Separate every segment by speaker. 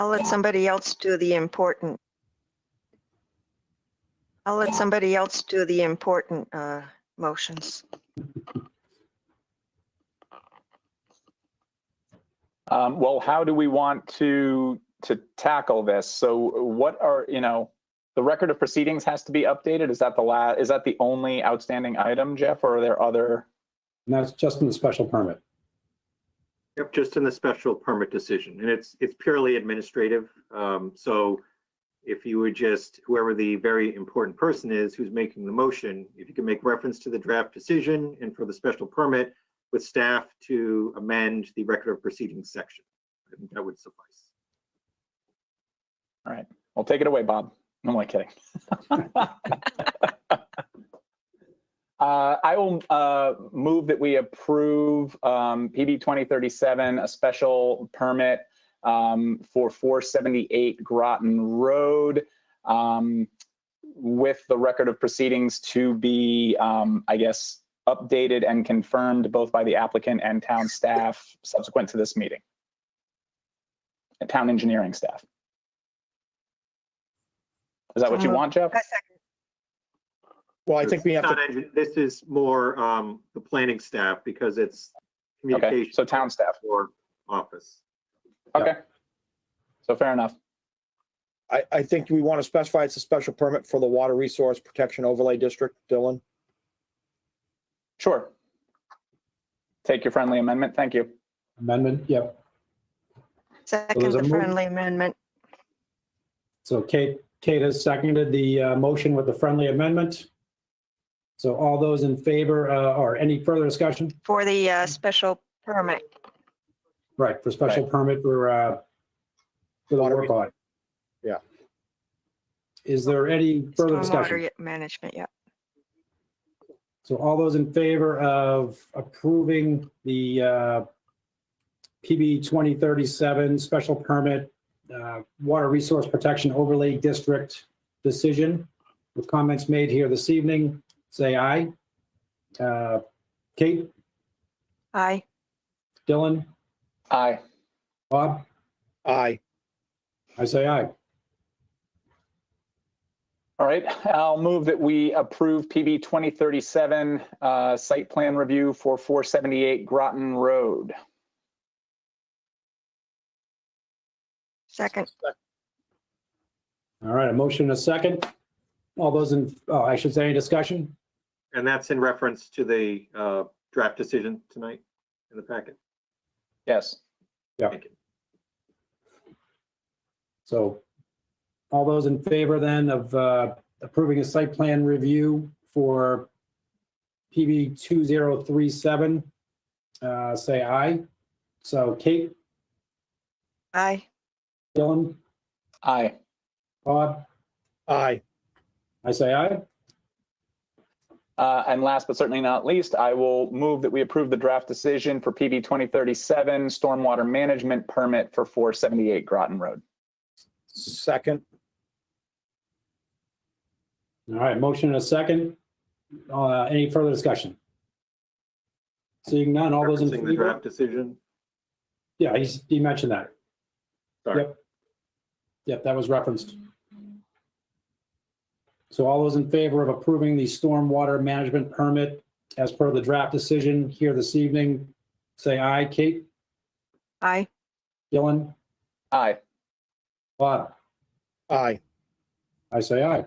Speaker 1: I'll let somebody else do the important. I'll let somebody else do the important uh, motions.
Speaker 2: Um, well, how do we want to to tackle this? So, what are you know, the record of proceedings has to be updated. Is that the la? Is that the only outstanding item, Jeff, or are there other?
Speaker 3: And that's just in the special permit.
Speaker 4: Yep, just in the special permit decision, and it's, it's purely administrative. Um, so if you would just, whoever the very important person is who's making the motion, if you can make reference to the draft decision and for the special permit with staff to amend the record of proceedings section, I think that would suffice.
Speaker 2: Well, take it away, Bob. No, I'm only kidding. Uh, I will uh, move that we approve um, PB 2037, a special permit um, for 478 Groton Road um, with the record of proceedings to be, um, I guess, updated and confirmed both by the applicant and town staff subsequent to this meeting. And Town engineering staff. Is that what you
Speaker 1: Um,
Speaker 2: want, Jeff?
Speaker 1: I second.
Speaker 5: Well, I think we have
Speaker 4: It's
Speaker 5: to,
Speaker 4: not engi- This is more, um, the planning staff because it's
Speaker 2: Okay,
Speaker 4: communication
Speaker 2: so town staff.
Speaker 4: or office.
Speaker 2: Okay. So fair enough.
Speaker 5: I, I think we want to specify it's a special permit for the Water Resource Protection Overlay District, Dylan.
Speaker 2: Sure. Take your friendly amendment. Thank you.
Speaker 3: Amendment, yep.
Speaker 1: Second
Speaker 3: a
Speaker 1: the
Speaker 3: move.
Speaker 1: friendly amendment.
Speaker 3: So Kate, Kate has seconded the uh, motion with the friendly amendment. So all those in favor uh, or any further discussion?
Speaker 1: For the uh, special permit,
Speaker 3: Right, for special permit for, uh, for the
Speaker 5: Water
Speaker 3: work audit.
Speaker 5: Yeah.
Speaker 3: Is there any further discussion?
Speaker 1: stormwater management, yeah.
Speaker 3: So all those in favor of approving the uh, PB 2037 special permit, uh, Water Resource Protection Overlay District decision with comments made here this evening, say aye. Uh, Kate,
Speaker 1: Aye.
Speaker 3: Dylan,
Speaker 2: Aye.
Speaker 3: Bob,
Speaker 5: Aye.
Speaker 3: I say aye.
Speaker 2: All right, I'll move that we approve PB 2037, uh, site plan review for 478 Groton Road.
Speaker 1: Second,
Speaker 3: All right, a motion and a second. All those in, oh, I should say, any discussion?
Speaker 4: And that's in reference to the uh, draft decision tonight in the packet.
Speaker 2: Yes.
Speaker 4: Thank you.
Speaker 3: So all those in favor then of uh, approving a site plan review for PB 2037, uh, say aye. So Kate,
Speaker 1: aye.
Speaker 3: Dylan,
Speaker 2: Aye.
Speaker 3: Bob,
Speaker 5: Aye.
Speaker 3: I say aye.
Speaker 2: Uh, And last but certainly not least, I will move that we approve the draft decision for PB 2037, stormwater management permit for 478 Groton Road.
Speaker 5: Second.
Speaker 3: All right, motion and a second. Uh, Any further discussion? Seeing none, all those in
Speaker 4: Referencing the
Speaker 3: favor?
Speaker 4: draft decision.
Speaker 3: Yeah, he's- he mentioned that.
Speaker 4: Sorry.
Speaker 3: Yep. Yep, that was referenced. So all those in favor of approving the stormwater management permit as per the draft decision here this evening, say aye. Kate,
Speaker 1: Aye.
Speaker 3: Dylan,
Speaker 2: Aye.
Speaker 3: Bob,
Speaker 5: Aye.
Speaker 3: I say aye.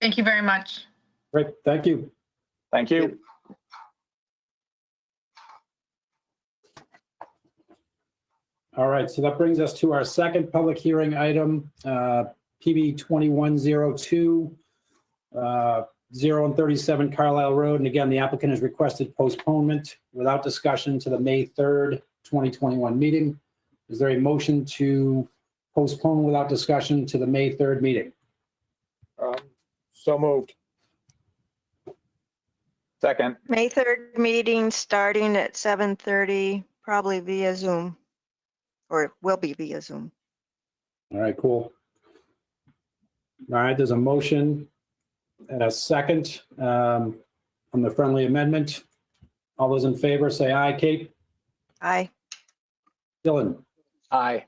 Speaker 6: Thank you very much.
Speaker 3: Great, thank you.
Speaker 2: Thank you.
Speaker 3: All right, so that brings us to our second public hearing item, uh, PB 2102, uh, 0 and 37 Carlisle Road. And again, the applicant has requested postponement without discussion to the May 3rd, 2021 meeting. Is there a motion to postpone without discussion to the May 3rd meeting?
Speaker 5: Um, So moved.
Speaker 2: Second.
Speaker 1: May 3rd meeting starting at 7:30, probably via Zoom. Or it will be via Zoom.
Speaker 3: All right, cool. All right, there's a motion and a second um, on the friendly amendment. All those in favor, say aye. Kate?
Speaker 1: Aye.
Speaker 3: Dylan?
Speaker 2: Aye.